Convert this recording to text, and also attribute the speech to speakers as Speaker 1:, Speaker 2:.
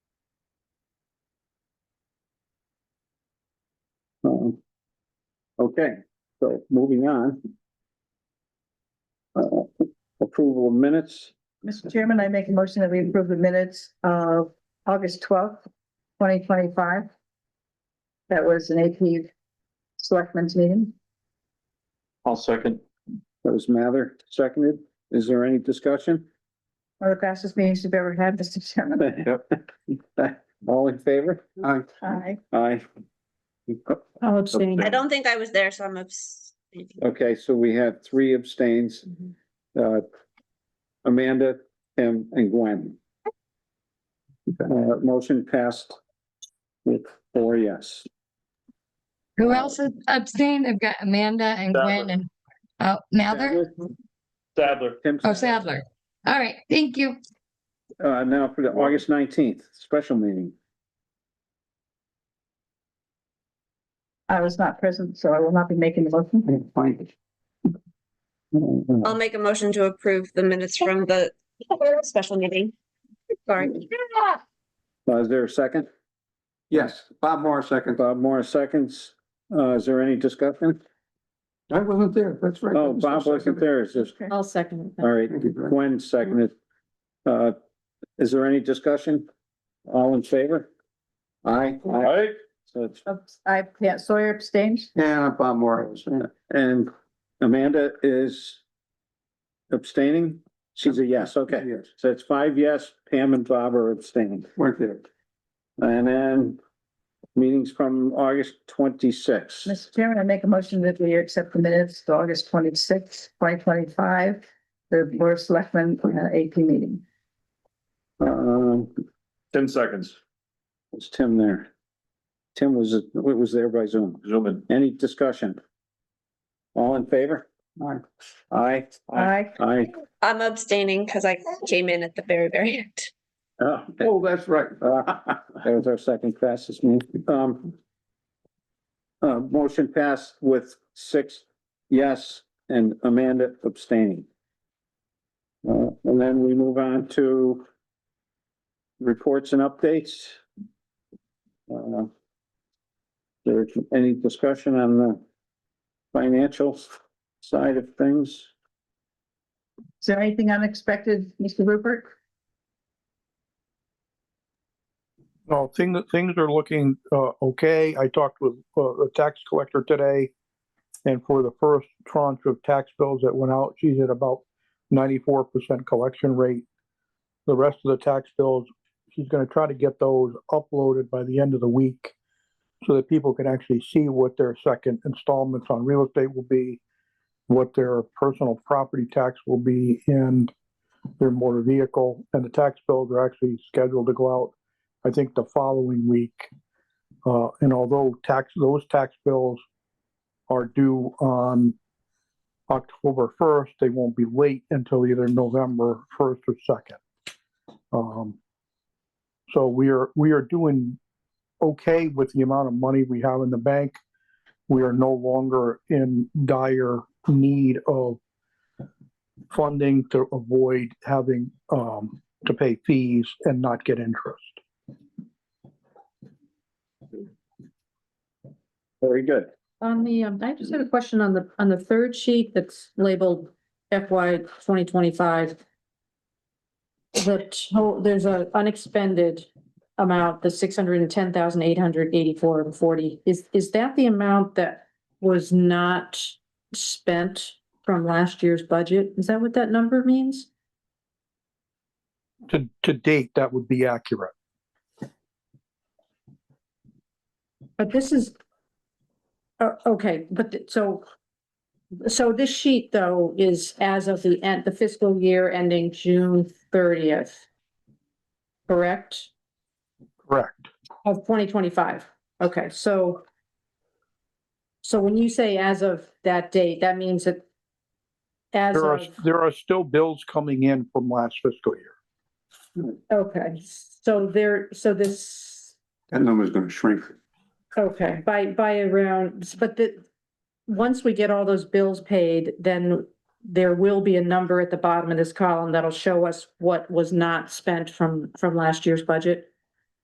Speaker 1: Um, Okay, so moving on. Uh, Approval of minutes,
Speaker 2: Mr. Chairman, I make a motion that we approve the minutes of August twelfth, twenty twenty-five. That was an AP selectmen's meeting.
Speaker 3: I'll second.
Speaker 1: that was Mather, seconded. Is there any discussion?
Speaker 2: One of the fastest meetings we've ever had, Mr. Chairman.
Speaker 1: All in favor? Aye.
Speaker 2: Aye.
Speaker 1: Aye.
Speaker 4: I'll abstain.
Speaker 5: I don't think I was there, so I'm abstaining.
Speaker 1: Okay, so we have three abstains. Uh, Amanda and, and Gwen. Uh, motion passed with four yes.
Speaker 6: Who else is abstained? I've got Amanda and
Speaker 3: Sadler.
Speaker 6: Gwen and, oh, Mather?
Speaker 3: Sadler.
Speaker 1: Tim-
Speaker 6: Oh, Sadler. All right, thank you.
Speaker 1: Uh, now for the August nineteenth, special meeting.
Speaker 2: I was not present, so I will not be making the motion.
Speaker 1: I didn't find it. Uh,
Speaker 5: I'll make a motion to approve the minutes from the special meeting. Sorry.
Speaker 1: Is there a second?
Speaker 7: Yes, Bob Moore second.
Speaker 1: Bob Morris seconds. Uh, is there any discussion?
Speaker 7: I wasn't there, that's right.
Speaker 1: Oh, Bob wasn't there, it's just,
Speaker 4: I'll second.
Speaker 1: all right,
Speaker 7: Thank you, Brad.
Speaker 1: Gwen seconded. Uh, is there any discussion? All in favor? Aye.
Speaker 3: All right.
Speaker 1: So it's-
Speaker 2: Abs- I, yeah, Sawyer abstains.
Speaker 7: Yeah, Bob Moore was, yeah.
Speaker 1: And Amanda is abstaining? She's a yes, okay.
Speaker 7: Yes,
Speaker 1: So it's five yes, Pam and Bob are abstaining.
Speaker 7: weren't there.
Speaker 1: And then meetings from August twenty-sixth.
Speaker 2: Mr. Chairman, I make a motion that we accept the minutes of August twenty-sixth, twenty twenty-five, the Board of Selectmen uh, AP meeting.
Speaker 1: Um,
Speaker 3: Ten seconds.
Speaker 1: was Tim there? Tim was, was there by Zoom.
Speaker 3: Zoom in.
Speaker 1: Any discussion? All in favor? Aye. Aye.
Speaker 2: Aye.
Speaker 1: Aye.
Speaker 5: I'm abstaining because I came in at the very, very end.
Speaker 1: Oh,
Speaker 7: Oh, that's right.
Speaker 1: Uh, That was our second fastest move. Um. Uh, motion passed with six yes and Amanda abstaining. Uh, and then we move on to reports and updates. Uh, There's any discussion on the financial side of things?
Speaker 2: Is there anything unexpected, Mr. Rupert?
Speaker 8: No, things, things are looking, uh, okay. I talked with, uh, the tax collector today. And for the first tranche of tax bills that went out, she's at about ninety-four percent collection rate. The rest of the tax bills, she's gonna try to get those uploaded by the end of the week. So that people can actually see what their second installments on real estate will be, what their personal property tax will be, and their motor vehicle. And the tax bills are actually scheduled to go out I think the following week. Uh, and although tax, those tax bills are due on October first, they won't be late until either November first or second. Um, so we are, we are doing okay with the amount of money we have in the bank. We are no longer in dire need of funding to avoid having, um, to pay fees and not get interest.
Speaker 1: Very good.
Speaker 4: On the, um, I just had a question on the, on the third sheet that's labeled FY twenty twenty-five. The whole, there's a unexpended amount, the six hundred and ten thousand eight hundred eighty-four and forty. Is, is that the amount that was not spent from last year's budget? Is that what that number means?
Speaker 8: To, to date, that would be accurate.
Speaker 4: But this is, oh, okay, but th- so, so this sheet though is as of the end, the fiscal year ending June thirtieth. Correct?
Speaker 8: Correct.
Speaker 4: Of twenty twenty-five. Okay, so so when you say as of that date, that means that as
Speaker 8: There are,
Speaker 4: of,
Speaker 8: there are still bills coming in from last fiscal year.
Speaker 4: okay, so there, so this
Speaker 7: That number's gonna shrink.
Speaker 4: Okay, by, by around, but the, once we get all those bills paid, then there will be a number at the bottom of this column that'll show us what was not spent from, from last year's budget.